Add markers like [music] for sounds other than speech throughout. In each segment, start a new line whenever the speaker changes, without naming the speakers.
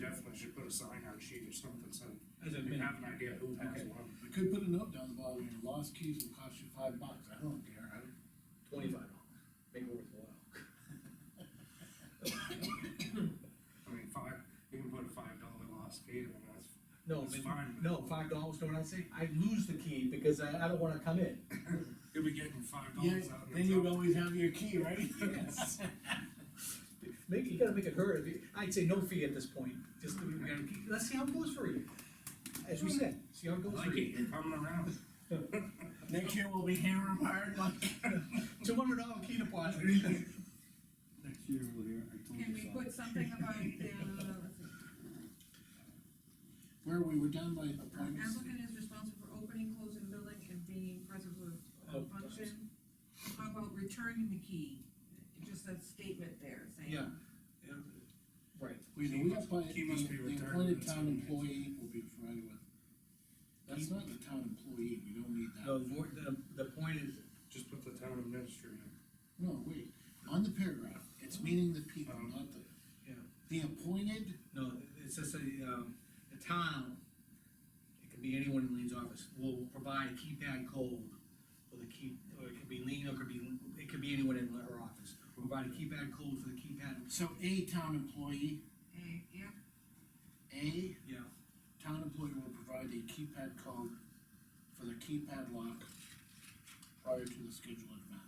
definitely should put a sign out sheet or something, so
As a
you
minimum.
have an idea who has
Okay.
one.
I could put a note down the bottom, your lost keys will cost you five bucks, I don't care, I don't.
twenty-five dollars, make it worthwhile.
I mean, five, you can put a five dollar lost key, I mean, that's,
No,
It's
man,
fine.
no, five dollars, don't I say, I lose the key because I, I don't wanna come in.
you'll be getting five
Yeah,
dollars out in
then
the
you'd
top.
always have your key, right? [laughs] Yes.
Make, you gotta make it hurt, If you- I'd say no fee at this point, just, to- we gotta keep- let's see how it goes for you. As we said, see how it goes for
Like it,
you.
you're coming around.
Next year we'll be hammering hard like.
Two hundred dollar key [laughs] deposit.
Next year, we'll hear, I told
Can
you
we
so.
put something about the,
Where we were done by appointments.
applicant is responsible for opening, closing building and being present with
Oh,
function? How about returning the key, just a statement there saying.
Yeah. Yeah. Right,
We, we got by,
He must be
the the
retired.
appointed town employee will be provided with. That's not the town employee, we don't need
no,
that.
the, wor- the, the point is,
Just put the town administrator.
No, wait, on the paragraph, it's meaning the people,
Um,
not the.
Yeah.
The appointed,
no, it's just a, um, the town, it could be anyone in Lean's office, will provide a keypad code for the key, or it could be Lean, or it could be, it could be anyone in her office. Provide a keypad code for the keypad,
so a town employee,
Eh, yeah,
a
yeah,
town employee will provide a keypad code for the keypad lock prior to the scheduled event.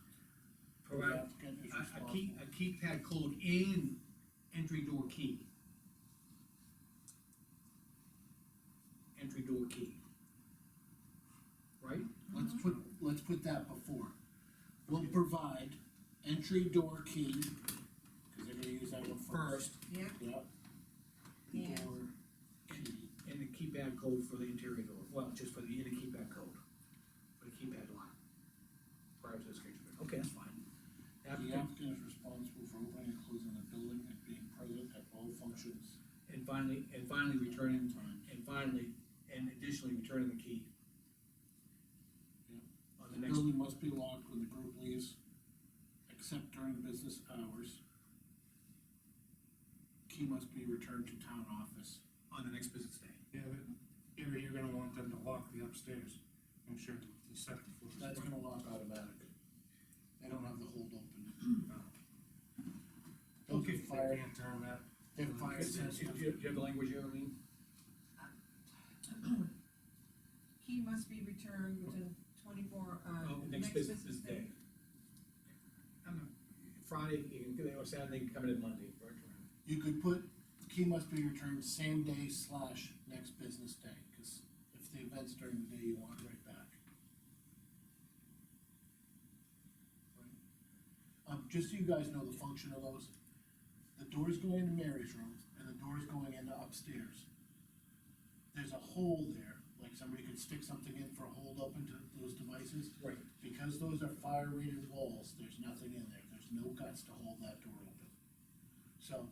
The
provide
applicant is
a, a
responsible.
key, a keypad code and entry door key. Entry door key. Right?
Let's put, let's put that before. Will provide entry door key, cause they're gonna use that one
First,
first.
yeah,
Yep.
Yeah.
Door key.
and the keypad code for the interior door, well, just for the, and the keypad code, for the keypad line. Prior to the schedule, okay, that's fine.
The
Applicant-
applicant is responsible for opening and closing the building and being present at all functions.
And finally, and finally returning,
Time.
and finally, and additionally returning the key.
Yeah.
On the
The
next,
building must be locked when the group leaves, except during business hours. Key must be returned to town office.
on the next business day.
Yeah, but, yeah, but you're gonna want them to lock the upstairs, make sure the second floor is.
That's gonna lock automatic. They don't have the hold open. Those
Okay.
are Fire,
They can't turn that.
they have fire
Do you,
sensors.
do you have the language here, Lean?
key must be returned within twenty-four, uh,
Oh, next business day. I'm not- Friday, you can, do it, or Saturday, you can come in Monday, right?
You could put, key must be returned same day slash next business day, cause if the event's during the day, you want it right back. Um, just so you guys know the function of those, the doors go into Mary's room and the doors going into upstairs. There's a hole there, like somebody could stick something in for a hold open to those devices.
Right.
Because those are fire rated walls, there's nothing in there, there's no guts to hold that door open. So,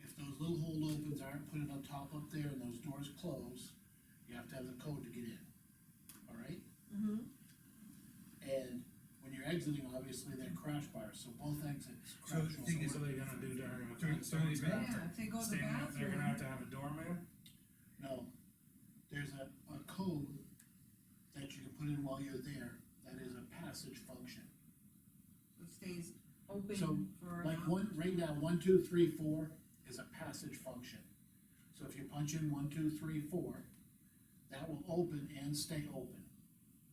if those little hold opens aren't put on top up there and those doors close, you have to have the code to get in, alright?
Mm-hmm,
And when you're exiting, obviously, they're crash bars, so both exits
So
crash.
the
will-
thing is, what are they gonna do during?
During- during
the Someone's gonna
yeah,
have to
if they go to the
stand up, They're
bathroom,
gonna have to have a doorman? uh,
No, there's a, a code that you can put in while you're there, that is a passage function.
it stays
So,
open for.
Like one, right now, one, two, three, four is a passage function. So if you punch in one, two, three, four, that will open and stay open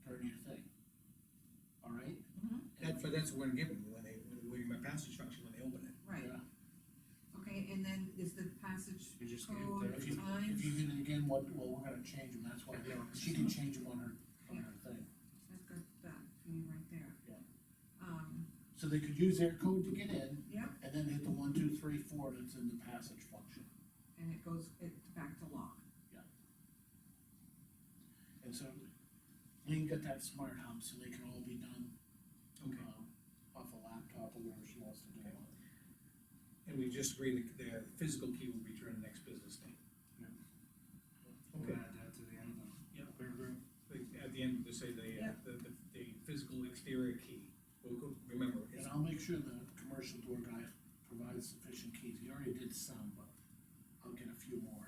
during your thing. All right?
Mhm.
That's, but that's what we're gonna give them, when they, when my passage function, when they open it.
Right,
Yeah.
okay, and then is the passage
You just get
code,
there.
If you,
times,
if you hit it again, what, well, we're gonna change them, that's why,
Yeah.
she can change them on her, on her thing.
that's good, that, for you right there.
Yeah.
Um,
So they could use their code to get in,
yeah,
and then hit the one, two, three, four that's in the passage function.
and it goes, it back to lock.
And so, Lean got that smart hub, so they can all be done, um, off a laptop or whatever she wants to do.
Okay. And we just agreed that the physical key will return the next business day.
Yeah. We'll
Okay,
add that to the end of the.
Yep.
Paragraph.
Like, at the end, they say the, uh,
Yeah.
the, the, the physical exterior key, we'll go, remember, it's
And I'll make sure the commercial door guy provides sufficient keys, he already did some,